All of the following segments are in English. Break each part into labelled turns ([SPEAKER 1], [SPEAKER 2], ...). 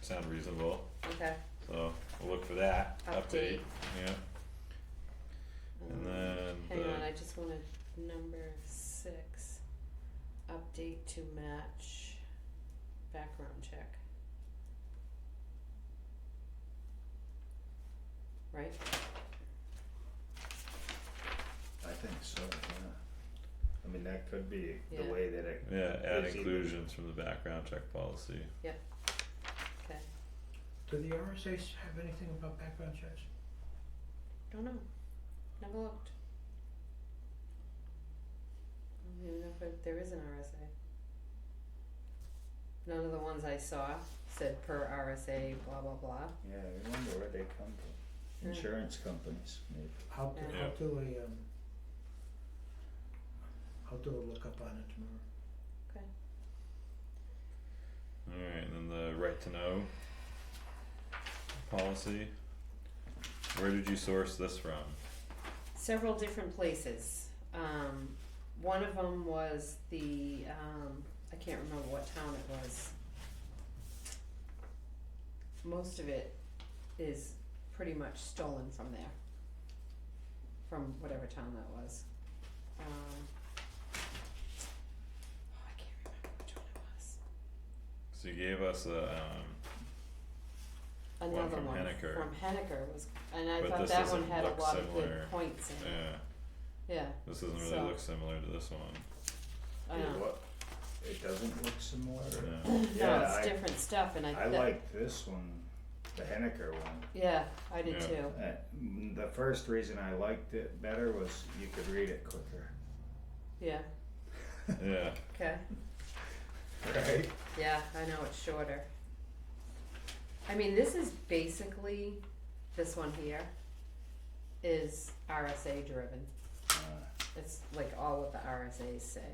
[SPEAKER 1] sound reasonable,
[SPEAKER 2] okay,
[SPEAKER 1] so we'll look for that update,
[SPEAKER 2] Update.
[SPEAKER 1] yeah. And
[SPEAKER 2] Um,
[SPEAKER 1] then
[SPEAKER 2] Hang
[SPEAKER 1] the-
[SPEAKER 2] on, I just wanted number six, update to match background check. Right,
[SPEAKER 3] I think so, yeah. I mean, that could be the
[SPEAKER 2] Yeah.
[SPEAKER 3] way that it,
[SPEAKER 1] Yeah, add
[SPEAKER 3] Is even-
[SPEAKER 1] inclusions from the background check policy.
[SPEAKER 2] okay,
[SPEAKER 4] Do the RSA's have anything about background checks?
[SPEAKER 2] don't know, never looked. I don't even know if there is an RSA. None of the ones I saw said per RSA blah blah blah,
[SPEAKER 3] yeah, I wonder where they come from.
[SPEAKER 2] Yeah.
[SPEAKER 3] Insurance companies, maybe.
[SPEAKER 4] I'll do,
[SPEAKER 1] Yeah.
[SPEAKER 4] I'll do a, um, I'll do a lookup on it tomorrow.
[SPEAKER 1] Alright, and then the right to know policy. Where did you source this from?
[SPEAKER 2] several different places. Um, one of them was the, um, I can't remember what town it was. Most of it is pretty much stolen from there. From whatever town that was. Um. oh, I can't remember which one it was.
[SPEAKER 1] So you gave us a um, One
[SPEAKER 2] Another
[SPEAKER 1] from
[SPEAKER 2] one
[SPEAKER 1] Henniker.
[SPEAKER 2] from Henniker was, and I
[SPEAKER 1] But
[SPEAKER 2] thought
[SPEAKER 1] this
[SPEAKER 2] that one
[SPEAKER 1] doesn't
[SPEAKER 2] had a
[SPEAKER 1] look
[SPEAKER 2] lot of
[SPEAKER 1] similar.
[SPEAKER 2] good points in it,
[SPEAKER 1] yeah,
[SPEAKER 2] yeah,
[SPEAKER 1] this doesn't really
[SPEAKER 2] So-
[SPEAKER 1] look similar to this one.
[SPEAKER 2] I
[SPEAKER 3] Yeah,
[SPEAKER 2] know.
[SPEAKER 3] what- It doesn't look similar.
[SPEAKER 1] Yeah.
[SPEAKER 2] No,
[SPEAKER 3] Yeah,
[SPEAKER 2] it's
[SPEAKER 3] I,
[SPEAKER 2] different stuff and I
[SPEAKER 3] I
[SPEAKER 2] that-
[SPEAKER 3] like this one, the Henniker one.
[SPEAKER 2] Yeah, I did
[SPEAKER 1] Yeah.
[SPEAKER 2] too.
[SPEAKER 3] Uh, mm, the first reason I liked it better was you could read it quicker.
[SPEAKER 2] Yeah.
[SPEAKER 1] Yeah,
[SPEAKER 2] Okay.
[SPEAKER 3] Right?
[SPEAKER 2] Yeah, I know it's shorter. I mean, this is basically this one here is RSA driven.
[SPEAKER 3] Uh,
[SPEAKER 2] It's like all what the RSAs say.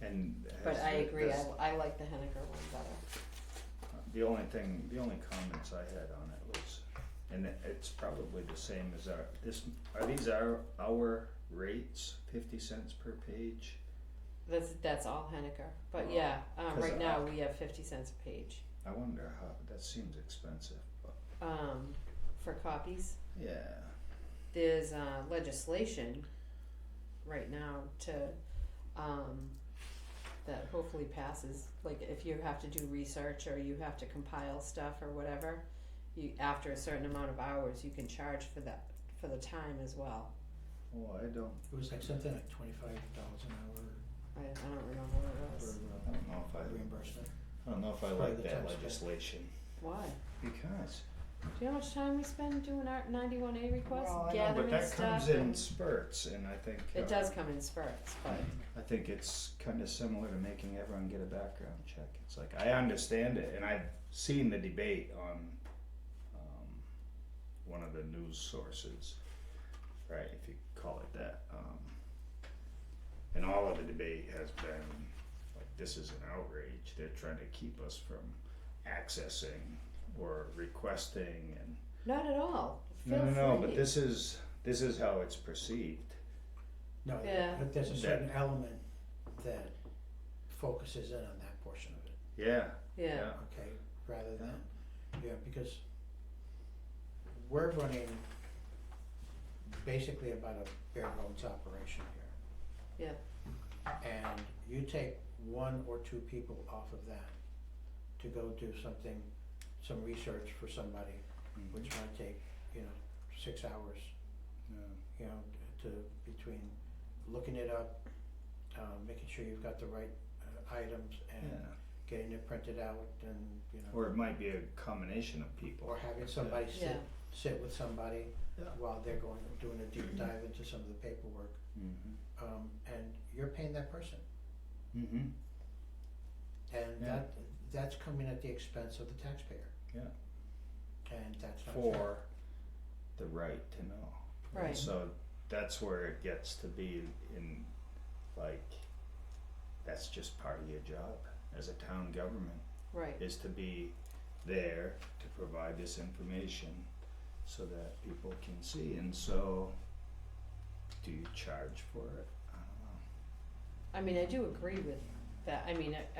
[SPEAKER 3] and
[SPEAKER 2] But
[SPEAKER 3] has
[SPEAKER 2] I
[SPEAKER 3] the-
[SPEAKER 2] agree. I,
[SPEAKER 3] this-
[SPEAKER 2] I like the Henniker one better.
[SPEAKER 3] The only thing, the only comments I had on it was, and it- it's probably the same as our, this, are these our, our rates, fifty cents per page?
[SPEAKER 2] That's that's all Henniker. But
[SPEAKER 3] Oh.
[SPEAKER 2] yeah, uh,
[SPEAKER 3] 'Cause
[SPEAKER 2] right
[SPEAKER 3] I-
[SPEAKER 2] now we have fifty cents a page
[SPEAKER 3] I wonder how, that seems expensive, but,
[SPEAKER 2] um, for copies.
[SPEAKER 3] yeah,
[SPEAKER 2] there's uh, legislation right now to um, that hopefully passes. Like if you have to do research or you have to compile stuff or whatever, you after a certain amount of hours, you can charge for that for the time as well.
[SPEAKER 3] well, Oh, I don't,
[SPEAKER 4] It was like something like twenty-five dollars an hour
[SPEAKER 2] I, I don't remember what it
[SPEAKER 4] for
[SPEAKER 2] was.
[SPEAKER 3] I
[SPEAKER 4] uh,
[SPEAKER 3] don't know if I,
[SPEAKER 4] reimbursement.
[SPEAKER 3] I don't know if I
[SPEAKER 4] Probably
[SPEAKER 3] like
[SPEAKER 4] the
[SPEAKER 3] that
[SPEAKER 4] tax code.
[SPEAKER 3] legislation,
[SPEAKER 2] Why?
[SPEAKER 3] because,
[SPEAKER 2] Do you know how much time we spend doing our ninety-one A requests,
[SPEAKER 3] well, I know,
[SPEAKER 2] gathering
[SPEAKER 3] but that
[SPEAKER 2] stuff?
[SPEAKER 3] comes in
[SPEAKER 2] and-
[SPEAKER 3] spurts, Mm-hmm. and I think, uh,
[SPEAKER 2] It does come in spurts, but
[SPEAKER 3] I think it's kind of similar to making everyone get a background check. It's like I understand it, and I've seen the debate on um, one of the news sources, right? If you call it that, um, and all of the debate has been like this is an outrage. They're trying to keep us from accessing or requesting, and
[SPEAKER 2] not at all.
[SPEAKER 3] no,
[SPEAKER 2] Feel
[SPEAKER 3] no, no. But
[SPEAKER 2] free.
[SPEAKER 3] this is this is how it's perceived.
[SPEAKER 4] No,
[SPEAKER 2] Yeah.
[SPEAKER 4] but there's a
[SPEAKER 3] That-
[SPEAKER 4] certain element that focuses in on that portion of it,
[SPEAKER 3] Yeah,
[SPEAKER 2] Yeah,
[SPEAKER 4] okay, rather than, yeah, because we're running basically about a bare bones operation here.
[SPEAKER 2] Yeah.
[SPEAKER 4] And you take one or two people off of that to go do something, some research for somebody,
[SPEAKER 3] Mhm.
[SPEAKER 4] which might take, you know, six hours,
[SPEAKER 3] yeah.
[SPEAKER 4] you know, to between looking it up, um, making sure you've got the right uh, items and
[SPEAKER 3] yeah.
[SPEAKER 4] getting it printed out and, you know,
[SPEAKER 3] Or it might be a combination of people.
[SPEAKER 4] or having somebody
[SPEAKER 2] yeah.
[SPEAKER 4] sit, sit with somebody
[SPEAKER 3] Yeah.
[SPEAKER 4] while they're going, doing a deep dive into some of the paperwork.
[SPEAKER 3] Mm-hmm.
[SPEAKER 4] Um, and you're paying that person.
[SPEAKER 3] Mm-hmm.
[SPEAKER 4] And
[SPEAKER 3] Yeah.
[SPEAKER 4] that, that's coming at the expense of the taxpayer.
[SPEAKER 3] Yeah.
[SPEAKER 4] And that's not fair.
[SPEAKER 3] For the right to know.
[SPEAKER 2] Right.
[SPEAKER 3] So that's where it gets to be in, like, that's just part of your job as a town government,
[SPEAKER 2] right.
[SPEAKER 3] is to be there to provide this information so that people can see. And so, do you charge for it? I don't know.
[SPEAKER 2] I mean, I do agree with that. I mean, I,